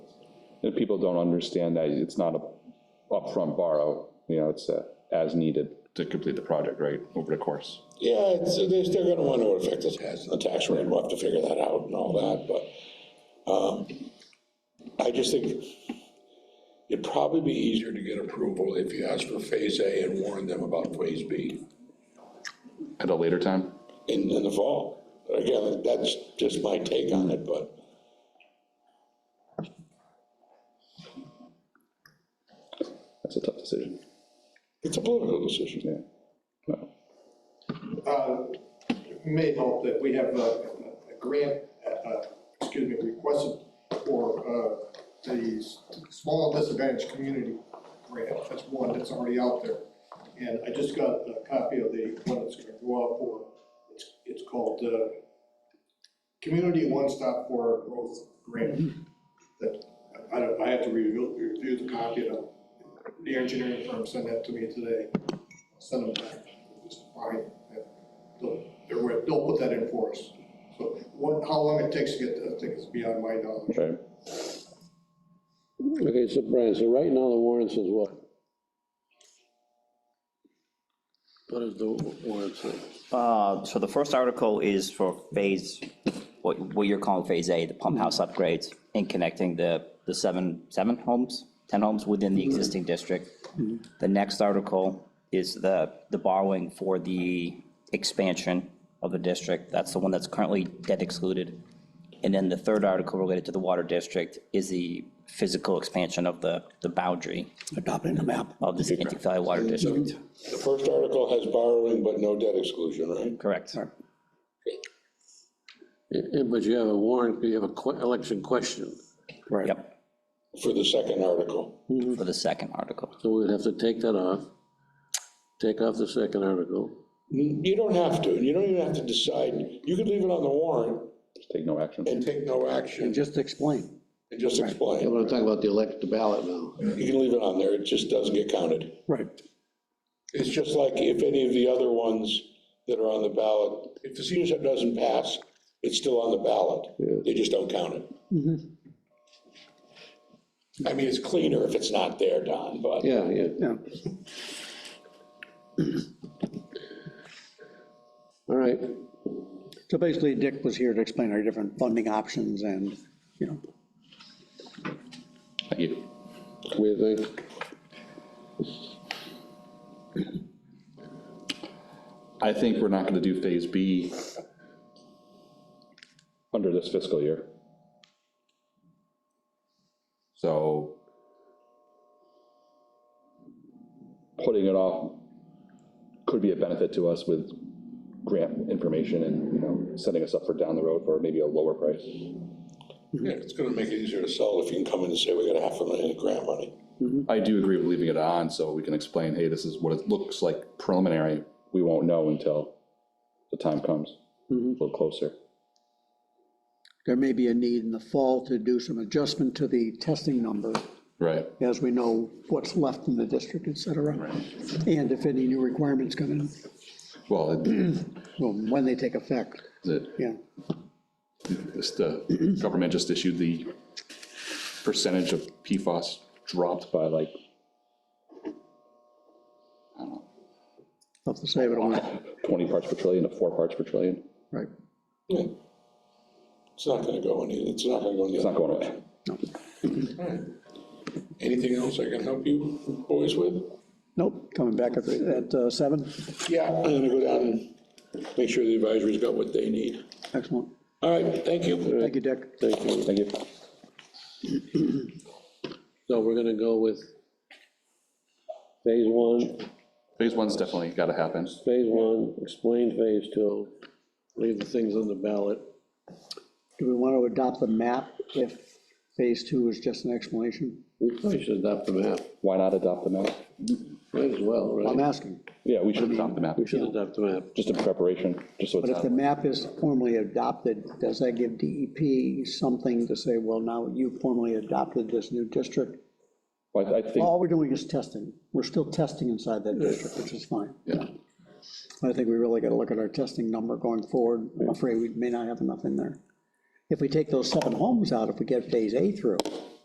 If people don't understand that, it's not a upfront borrow, you know, it's a as needed to complete the project, right, over the course. Yeah, it's, they're still gonna want to affect us as the tax rate, we'll have to figure that out and all that, but, um, I just think it'd probably be easier to get approval if you ask for phase A and warn them about phase B At a later time? in, in the fall. Again, that's just my take on it, but That's a tough decision, it's a political decision. yeah. Well, uh, may help that we have a, a grant, uh, excuse me, requested for uh, the s- small disadvantaged community grant, that's one that's already out there. And I just got a copy of the one that's gonna go out for, it's, it's called, uh, Community One Stop for Growth Grant. That, I don't, I have to review, review the copy, and the engineering firm sent that to me today send them back, just fine. They'll, they're- they'll put that in for us. So what, how long it takes to get that thing is beyond my knowledge. Right, Okay, so Brian, so right now the warrant says what? What is the warrant say? Uh, So the first article is for phase, what, what you're calling phase A, the pump house upgrades and connecting the, the seven, seven homes, 10 homes within the existing district. The next article is the, the borrowing for the expansion of the district. That's the one that's currently debt excluded. And then the third article related to the water district is the physical expansion of the, the boundary adopting the map. of the Scantic Valley Water District. The first article has borrowing but no debt exclusion, right? Correct. Eh, eh, But you have a warrant, you have a que- election question, Right. Yep, For the second article. for the second article. so we'd have to take that off, take off the second article. You don't have to, you don't even have to decide, you could leave it on the warrant just take no action. and take no And action just explain. and just I explain. want to talk about the elect, the ballot now. You can leave it on there, it just doesn't get counted. Right. It's just like if any of the other ones that are on the ballot, if the senior center doesn't pass, it's still on the ballot. They just don't count it. Mm-hmm. I mean, it's cleaner if it's not there, Don, but Yeah, yeah. Yeah. All right, So basically, Dick was here to explain our different funding options and, you know, Thank you. we think, I think we're not gonna do phase B under this fiscal year. So putting it off could be a benefit to us with grant information and, you know, setting us up for down the road for maybe a lower price. yeah, it's gonna make it easier to sell if you can come in and say, we got a half a million in grant money. I do agree with leaving it on, so we can explain, hey, this is what it looks like preliminary. We won't know until the time comes, a little closer. there may be a need in the fall to do some adjustment to the testing number Right. as we know what's left in the district, et cetera. And if any new requirements come in, Well, it- well, when they take effect, it, yeah. This, the government just issued the percentage of PFAS dropped by like, Tough to say, but, it went- 20 parts per trillion to four parts per trillion. right. Yeah. It's not gonna go any, it's not gonna go any. It's not going away. No. Anything else I can help you boys with? Nope, coming back at, at uh, seven. Yeah, I'm gonna go down and make sure the advisory's got what they need. Excellent. All right, thank you. Thank you, Dick. thank you. Thank you. So we're going to go with phase one, Phase one's definitely got to happen. phase one, explain phase two, leave the things on the ballot. Do we want to adopt the map if phase two is just an explanation? We probably should adopt the map, Why not adopt the map? might as well, I'm right? asking. Yeah, we should adopt the map, We should adopt the map. just in preparation, just so it's But if not. the map is formally adopted, does that give DEP something to say, well, now you formally adopted this new district? Well, I I think, All we're doing is testing. We're still testing inside that district, which is fine. yeah, I think we really got to look at our testing number going forward. I'm afraid we may not have enough in there. If we take those seven homes out, if we get phase A through,